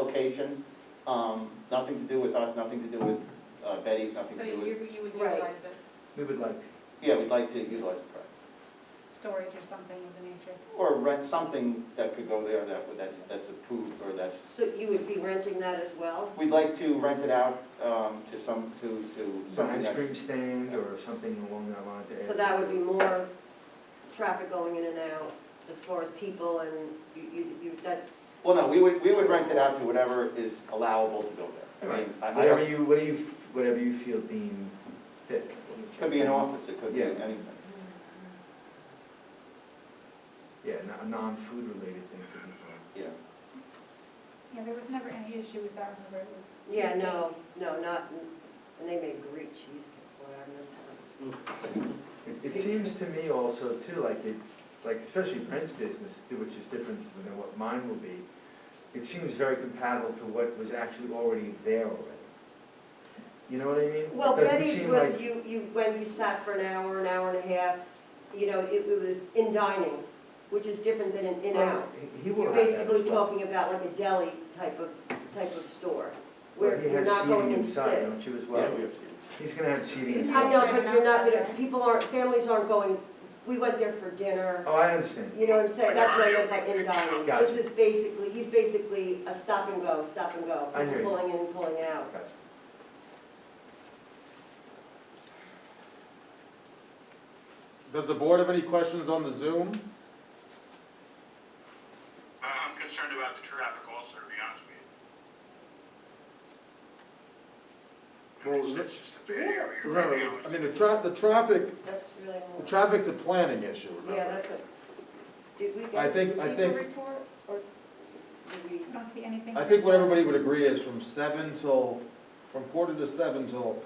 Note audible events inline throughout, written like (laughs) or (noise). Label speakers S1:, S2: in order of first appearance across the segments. S1: location, um, nothing to do with us, nothing to do with uh, Betty's, nothing
S2: So
S1: to do
S2: you,
S1: with,
S2: you would
S3: Right.
S2: utilize it,
S4: We would like to.
S1: yeah, we'd like to utilize it, correct.
S2: storage or something of the nature?
S1: Or rent something that could go there that, would- that's, that's approved or that's,
S3: So you would be renting that as well?
S1: we'd like to rent it out, um, to some, to, to
S4: Some
S1: something
S4: ice
S1: that.
S4: cream stand or something along that line. to
S3: So
S4: add.
S3: that would be more traffic going in and out as far as people and you, you, you, that,
S1: Well, no, we would, we would rent it out to whatever is allowable to go there. I mean, I- I don't-
S4: Whatever you, what do you, whatever you feel deemed fit.
S1: It could be an office, it could be
S4: Yeah.
S1: anything.
S4: Yeah, no- a non-food related thing could be fine.
S1: Yeah,
S5: Yeah, there was never any issue with that, remember, it was.
S3: yeah, no, no, not, and they make great cheesecake, boy, I miss that.
S4: It, it seems to me also too, like it, like especially Brent's business, too, which is different than what mine will be, it seems very compatible to what was actually already there already. You know what I mean?
S3: Well,
S4: It doesn't
S3: Betty's
S4: seem
S3: was,
S4: like-
S3: you, you, when you sat for an hour, an hour and a half, you know, it it was in dining, which is different than an in-out.
S4: He- He will
S3: You're
S4: have that as
S3: basically
S4: well.
S3: talking about like a deli type of, type of store,
S4: Well,
S3: where
S4: he
S3: you're
S4: has
S3: not going
S4: seating
S3: in to sit.
S4: inside, don't you as well?
S1: yeah, we have to.
S4: He's gonna have seating as
S5: Seating.
S3: I
S4: well.
S3: know, but you're not gonna, people aren't, families aren't going, we went there for dinner,
S4: Oh, I understand.
S3: you know what I'm saying? That's what I meant by in dining.
S4: Gotcha.
S3: This is basically, he's basically a stop and go, stop and go.
S4: I hear you.
S3: Pulling in, pulling out.
S4: Gotcha.
S6: Does the board have any questions on the Zoom?
S7: I- Uh, I'm concerned about the traffic also, to be honest with you. I mean, It's it's just a bad area right now.
S6: Remember, I
S7: It's-
S6: mean, the tra, the traffic,
S3: That's really
S6: the
S3: more.
S6: traffic's a planning issue,
S3: Yeah,
S6: remember?
S3: that's a, did we get?
S6: I think- I
S3: a
S6: think-
S3: report, or did we?
S5: I don't see anything.
S6: I think what everybody would agree is from seven till, from quarter to seven till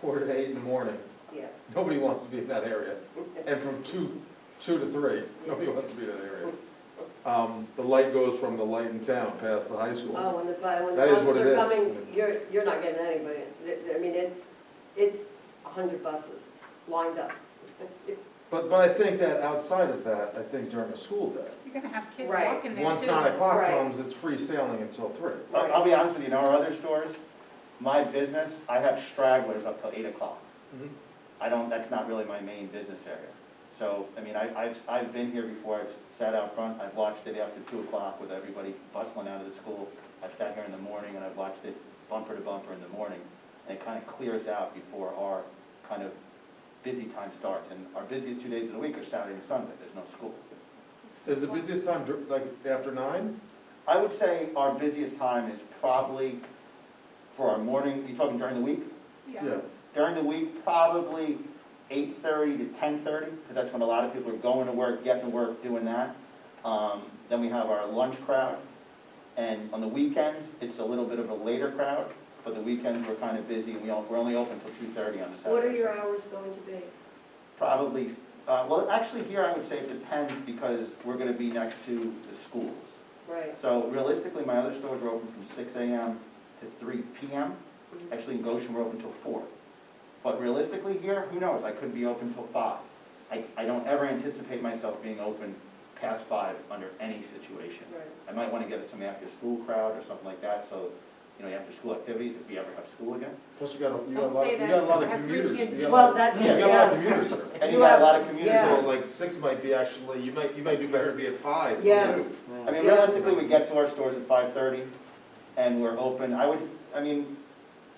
S6: quarter to eight in the morning,
S3: Yeah.
S6: nobody wants to be in that area. And from two, two to three, (laughs) nobody wants to be in that area. Um, the light goes from the light in town past the high school.
S3: Oh, when the, bu- when the
S6: That is what
S3: buses
S6: it
S3: are
S6: is.
S3: coming, you're, you're not getting anybody. Th- th- I mean, it's, it's a hundred buses lined up.
S6: But, but I think that outside of that, I think during a school day,
S5: You're gonna have kids
S3: Right.
S5: walking there too.
S6: once nine o'clock
S3: Right.
S6: comes, it's free sailing until three.
S1: I'll I'll be honest with you, in our other stores, my business, I have stragglers up till eight o'clock.
S6: Mhm.
S3: Mm-hmm.
S1: I don't, that's not really my main business area. So, I mean, I, I've, I've been here before, I've sat out front, I've watched it after two o'clock with everybody bustling out of the school. I've sat here in the morning and I've watched it bumper to bumper in the morning, and it kind of clears out before our kind of busy time starts. And our busiest two days of the week are Saturday and Sunday, there's no school.
S6: Is the busiest time, dur- like, after nine?
S1: I would say our busiest time is probably for our morning, you talking during the week?
S5: Yeah.
S1: During the week, probably eight thirty to ten thirty, because that's when a lot of people are going to work, getting to work, doing that. Um, then we have our lunch crowd, and on the weekends, it's a little bit of a later crowd, but the weekends, we're kind of busy, and we all, we're only open till two thirty on the Saturday.
S3: What are your hours going to be?
S1: Probably, uh, well, actually here, I would say it depends, because we're gonna be next to the schools.
S3: Right.
S1: So realistically, my other stores are open from six AM to three PM. Actually, in Goshen, we're open till four. But realistically here, who knows, I could be open till five. I, I don't ever anticipate myself being open past five under any situation.
S3: Right.
S1: I might wanna get some after-school crowd or something like that, so, you know, after-school activities, if we ever have school again.
S6: Plus you got, a- you got a
S2: Don't
S6: lot,
S2: say
S6: you
S2: that.
S6: got a lot
S2: I
S6: of
S2: have three
S6: commuters. You
S2: kids.
S6: got a
S3: Well,
S6: lot-
S3: that-
S6: You got a lot
S3: yeah.
S6: of commuters here.
S1: And you got a lot of
S3: Yeah.
S1: commuters
S6: So like six might be actually, you might, you might do better to be at five. than
S3: Yeah.
S6: two.
S1: I mean, realistically, we get to our stores at five thirty, and we're open, I would, I mean,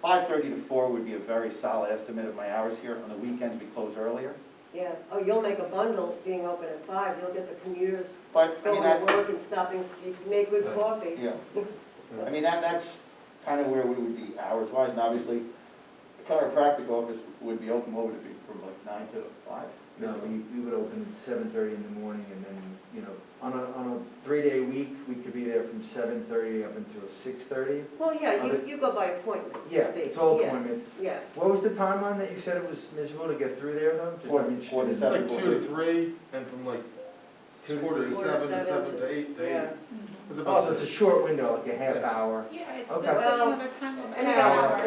S1: five thirty to four would be a very solid estimate of my hours here, on the weekends, we close earlier.
S3: Yeah, oh, you'll make a bundle being open at five, you'll get the commuters
S1: But, I
S3: going
S1: mean,
S3: to
S1: that,
S3: work and stopping, you can make good
S4: Right.
S3: coffee.
S1: yeah, I mean, that, that's kind of where we would be hours-wise, and obviously, the chiropractic office would be open, what would it be, from like nine to five?
S4: No, we, we would open at seven thirty in the morning and then, you know, on a, on a three-day week, we could be there from seven thirty up until six thirty.
S3: Well, yeah,
S4: Are
S3: you,
S4: they-
S3: you go by appointment.
S4: Yeah,
S3: ba-
S4: it's all
S3: yeah,
S4: appointment.
S3: Yeah,
S4: What was the timeline that you said it was miserable to get through there though? Just
S1: Quarter-
S4: I'm interested
S1: quarter
S4: in-
S6: It's like
S1: seven.
S6: two to three, and from like s-
S4: Two to
S6: quarter to
S3: three. Quarter
S6: seven to
S3: seven to-
S6: seven to eight to
S3: yeah.
S6: eight. It's about
S4: Oh, so it's a
S6: six.
S4: short window, like a half
S6: Yeah.
S4: hour.
S5: Yeah, it's just
S4: Okay.
S5: another time, of-
S3: An hour, an hour.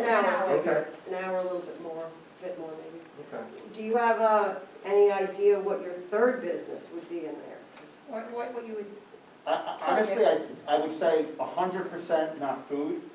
S4: Okay,
S3: An hour, a little bit more, a bit more maybe.
S4: okay.
S3: Do you have, uh, any idea what your third business would be in there?
S5: What, what, what you would
S1: I- I- Honestly, I, I would say hundred percent not food,